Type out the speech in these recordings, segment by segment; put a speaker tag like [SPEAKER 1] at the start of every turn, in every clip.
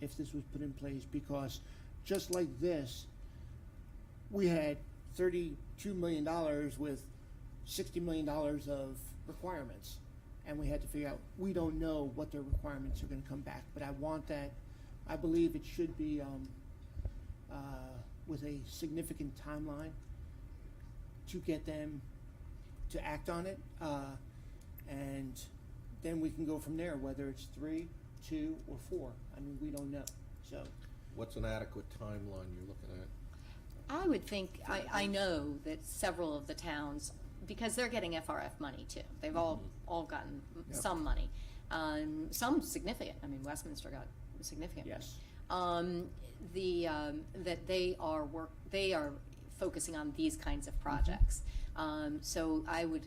[SPEAKER 1] if this was put in place, because just like this, we had thirty-two million dollars with sixty million dollars of requirements. And we had to figure out, we don't know what their requirements are gonna come back, but I want that, I believe it should be, um, uh, with a significant timeline to get them to act on it, uh, and then we can go from there, whether it's three, two, or four. I mean, we don't know, so.
[SPEAKER 2] What's an adequate timeline you're looking at?
[SPEAKER 3] I would think, I, I know that several of the towns, because they're getting FRF money too, they've all, all gotten m-
[SPEAKER 1] Yep.
[SPEAKER 3] some money. Um, some significant, I mean, Westminster got significant money.
[SPEAKER 1] Yes.
[SPEAKER 3] Um, the, um, that they are work, they are focusing on these kinds of projects.
[SPEAKER 2] Mm-hmm.
[SPEAKER 3] Um, so I would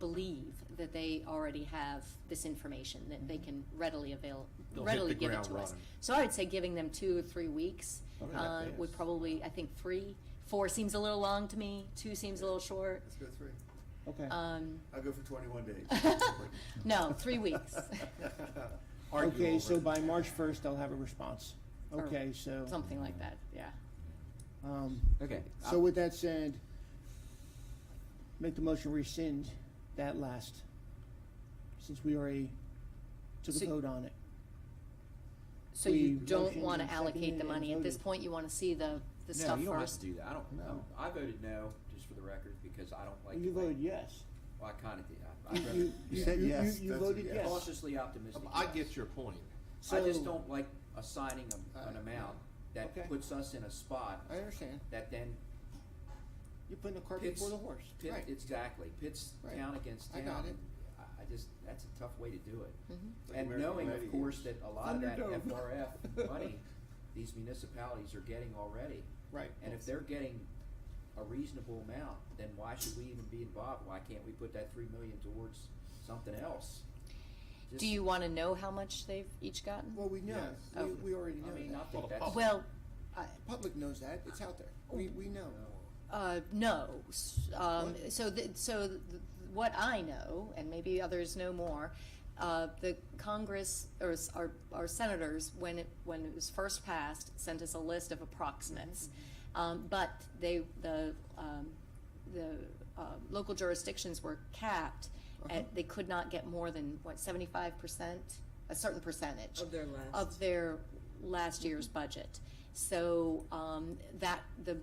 [SPEAKER 3] believe that they already have this information, that they can readily avail,
[SPEAKER 2] Mm-hmm. They'll hit
[SPEAKER 3] readily
[SPEAKER 2] the
[SPEAKER 3] give it
[SPEAKER 2] ground
[SPEAKER 3] to us.
[SPEAKER 2] running. Oh,
[SPEAKER 3] So I would say giving them two or three weeks,
[SPEAKER 2] Probably not
[SPEAKER 3] uh, would
[SPEAKER 2] fast.
[SPEAKER 3] probably, I think, three, four seems a little long to me, two seems a little short.
[SPEAKER 4] Let's go three.
[SPEAKER 1] Okay.
[SPEAKER 3] Um,
[SPEAKER 4] I'll go for twenty-one days.
[SPEAKER 3] no, three weeks,
[SPEAKER 2] Argue
[SPEAKER 1] Okay, so
[SPEAKER 2] over it.
[SPEAKER 1] by March first, I'll have a response.
[SPEAKER 3] Or
[SPEAKER 1] Okay, so,
[SPEAKER 3] something like that, yeah.
[SPEAKER 1] um,
[SPEAKER 5] Okay.
[SPEAKER 1] so with that said, make the motion rescind that last, since we already took a
[SPEAKER 3] So-
[SPEAKER 1] vote on it.
[SPEAKER 3] So you
[SPEAKER 1] We
[SPEAKER 3] don't
[SPEAKER 1] motioned
[SPEAKER 3] wanna
[SPEAKER 1] and
[SPEAKER 3] allocate
[SPEAKER 1] seconded
[SPEAKER 3] the
[SPEAKER 1] and
[SPEAKER 3] money, at this
[SPEAKER 1] voted.
[SPEAKER 3] point, you wanna see the, the
[SPEAKER 5] No,
[SPEAKER 3] stuff
[SPEAKER 5] you don't have to
[SPEAKER 3] first.
[SPEAKER 5] do that. I don't know.
[SPEAKER 1] No.
[SPEAKER 5] I voted no, just for the record, because I don't like.
[SPEAKER 1] You
[SPEAKER 5] the way-
[SPEAKER 1] voted yes.
[SPEAKER 5] Well, I kinda did. I-
[SPEAKER 1] You,
[SPEAKER 5] I'd rather-
[SPEAKER 1] you, you,
[SPEAKER 4] You said
[SPEAKER 1] you-
[SPEAKER 4] yes,
[SPEAKER 1] you
[SPEAKER 4] that's a
[SPEAKER 1] voted
[SPEAKER 4] yes.
[SPEAKER 1] yes.
[SPEAKER 5] Cautiously optimistic.
[SPEAKER 2] Um, I
[SPEAKER 5] yes.
[SPEAKER 2] get your point.
[SPEAKER 5] I just
[SPEAKER 1] So- Uh,
[SPEAKER 5] don't like assigning a- an
[SPEAKER 4] I-
[SPEAKER 5] amount that
[SPEAKER 1] Okay.
[SPEAKER 5] puts us in a spot
[SPEAKER 1] I understand.
[SPEAKER 5] that then
[SPEAKER 1] You're putting the cart
[SPEAKER 5] It's-
[SPEAKER 1] before the horse.
[SPEAKER 5] pit,
[SPEAKER 1] Right.
[SPEAKER 5] exactly, pits
[SPEAKER 1] Right.
[SPEAKER 5] town against
[SPEAKER 1] I
[SPEAKER 5] town.
[SPEAKER 1] got it. Mm-hmm.
[SPEAKER 5] I- I just, that's a tough way to do it.
[SPEAKER 3] Mhm.
[SPEAKER 4] Like
[SPEAKER 5] And
[SPEAKER 4] American
[SPEAKER 5] knowing, of
[SPEAKER 4] Gladiators.
[SPEAKER 5] course, that a lot of that
[SPEAKER 4] Thunderdome.
[SPEAKER 5] FRF money, these municipalities are getting already.
[SPEAKER 1] Right.
[SPEAKER 5] And if they're getting a reasonable amount, then why should we even be involved? Why can't we put that three million towards something else? Just-
[SPEAKER 3] Do you wanna know how much they've each gotten?
[SPEAKER 1] Well, we know,
[SPEAKER 4] Yes.
[SPEAKER 1] we,
[SPEAKER 3] Oh.
[SPEAKER 1] we already
[SPEAKER 5] I mean,
[SPEAKER 1] know
[SPEAKER 5] I
[SPEAKER 1] that.
[SPEAKER 5] think that's.
[SPEAKER 3] Well, I,
[SPEAKER 1] Public knows that, it's out there, we, we know.
[SPEAKER 3] Uh, no. S- Um,
[SPEAKER 1] What?
[SPEAKER 3] so, th- so th- th- what I know, and maybe others know more, uh, the Congress or s- our, our senators, when it when it was first passed, sent us a list of approximates, um, but they the um, the uh, local jurisdictions were capped.
[SPEAKER 1] Uh-huh.
[SPEAKER 3] At, they could not get more than what seventy five percent, a certain percentage
[SPEAKER 6] Of their last.
[SPEAKER 3] of their last year's budget. So um, that, the,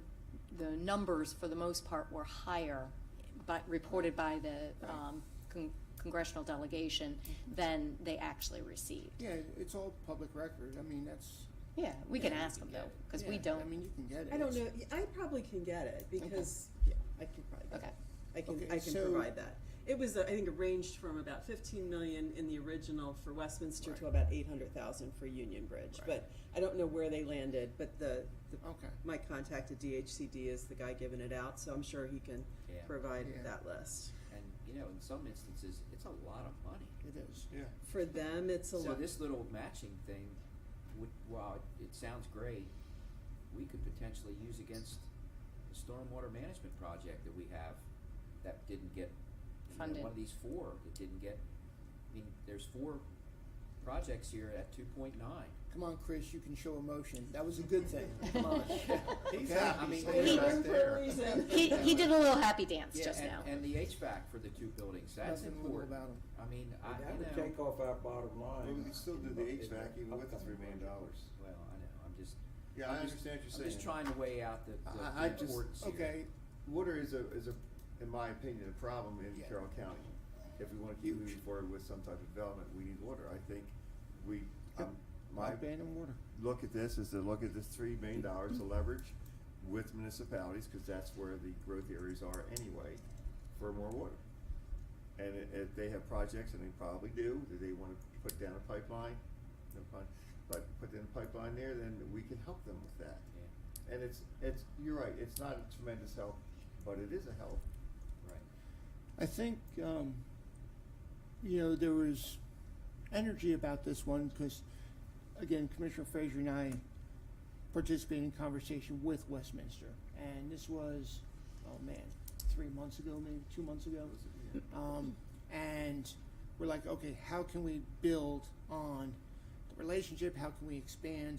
[SPEAKER 3] the numbers for the most part were higher, but reported by the um, con- congressional delegation
[SPEAKER 1] Mm-hmm.
[SPEAKER 3] than they actually received.
[SPEAKER 1] Yeah, it's all public record, I mean, that's,
[SPEAKER 3] Yeah, we can
[SPEAKER 1] Yeah,
[SPEAKER 3] ask them though, because we
[SPEAKER 1] yeah, I
[SPEAKER 3] don't,
[SPEAKER 1] mean, you can get it.
[SPEAKER 6] I don't know,
[SPEAKER 1] It's-
[SPEAKER 6] I probably can get it, because, yeah, I can probably get
[SPEAKER 3] okay.
[SPEAKER 6] it. I
[SPEAKER 1] Okay,
[SPEAKER 6] can, I can
[SPEAKER 1] so-
[SPEAKER 6] provide that. It was, uh, I think, it ranged from about fifteen million in the original for Westminster to about eight hundred thousand for Union Bridge. But I don't know where they landed, but the, the,
[SPEAKER 1] Okay.
[SPEAKER 6] my contact at DHCD is the guy giving it out, so I'm sure he can
[SPEAKER 5] Yeah.
[SPEAKER 6] provide
[SPEAKER 1] Yeah.
[SPEAKER 6] that list.
[SPEAKER 5] And, you know, in some instances, it's a lot of money.
[SPEAKER 1] It is.
[SPEAKER 4] Yeah.
[SPEAKER 6] For them, it's a
[SPEAKER 5] So
[SPEAKER 6] lot,
[SPEAKER 5] this little matching thing, would, while it sounds great, we could potentially use against the stormwater management project that we have that didn't get, you know,
[SPEAKER 3] Funded.
[SPEAKER 5] one of these four that didn't get, I mean, there's four projects here at two point nine.
[SPEAKER 1] Come on, Chris, you can show emotion. That was a good thing. Come on.
[SPEAKER 4] He's
[SPEAKER 1] Okay.
[SPEAKER 4] happy
[SPEAKER 5] I mean,
[SPEAKER 4] sitting
[SPEAKER 3] he-
[SPEAKER 4] back there.
[SPEAKER 3] He, he did a little happy dance just
[SPEAKER 5] and,
[SPEAKER 3] now.
[SPEAKER 5] and the HVAC for the two buildings, that's
[SPEAKER 1] Nothing little
[SPEAKER 5] important.
[SPEAKER 1] about 'em.
[SPEAKER 5] I mean, I,
[SPEAKER 7] That
[SPEAKER 5] you know.
[SPEAKER 7] would take off our bottom
[SPEAKER 4] Well,
[SPEAKER 7] line.
[SPEAKER 4] we could still do the HVAC even with the three million dollars.
[SPEAKER 5] Well, I know, I'm just.
[SPEAKER 4] Yeah,
[SPEAKER 5] I'm
[SPEAKER 4] I
[SPEAKER 5] just-
[SPEAKER 4] understand what you're
[SPEAKER 5] I'm
[SPEAKER 4] saying.
[SPEAKER 5] just trying to weigh out the,
[SPEAKER 4] I, I
[SPEAKER 5] the- the
[SPEAKER 4] just,
[SPEAKER 5] importance here.
[SPEAKER 4] okay, water is a, is a, in my opinion, a problem in
[SPEAKER 1] Yeah.
[SPEAKER 4] Carroll County. If we wanna keep moving forward with some type of development, we need water. I think we, um, my
[SPEAKER 1] Broadband and water.
[SPEAKER 4] look at this is to look at this three million dollars to leverage with municipalities, cause that's where the growth areas are anyway, for more water. And i- if they have projects, and they probably do, that they wanna put down a pipeline, no pun, but put in a pipeline there, then we can help them with that.
[SPEAKER 5] Yeah,
[SPEAKER 4] And it's, it's, you're right, it's not a tremendous help, but it is a help.
[SPEAKER 5] right.
[SPEAKER 1] I think, um, you know, there was energy about this one because, again, Commissioner Frazier and I participated in conversation with Westminster. And this was, oh man, three months ago, maybe two months ago. Um, and we're like, okay, how can we build on the relationship? How can we expand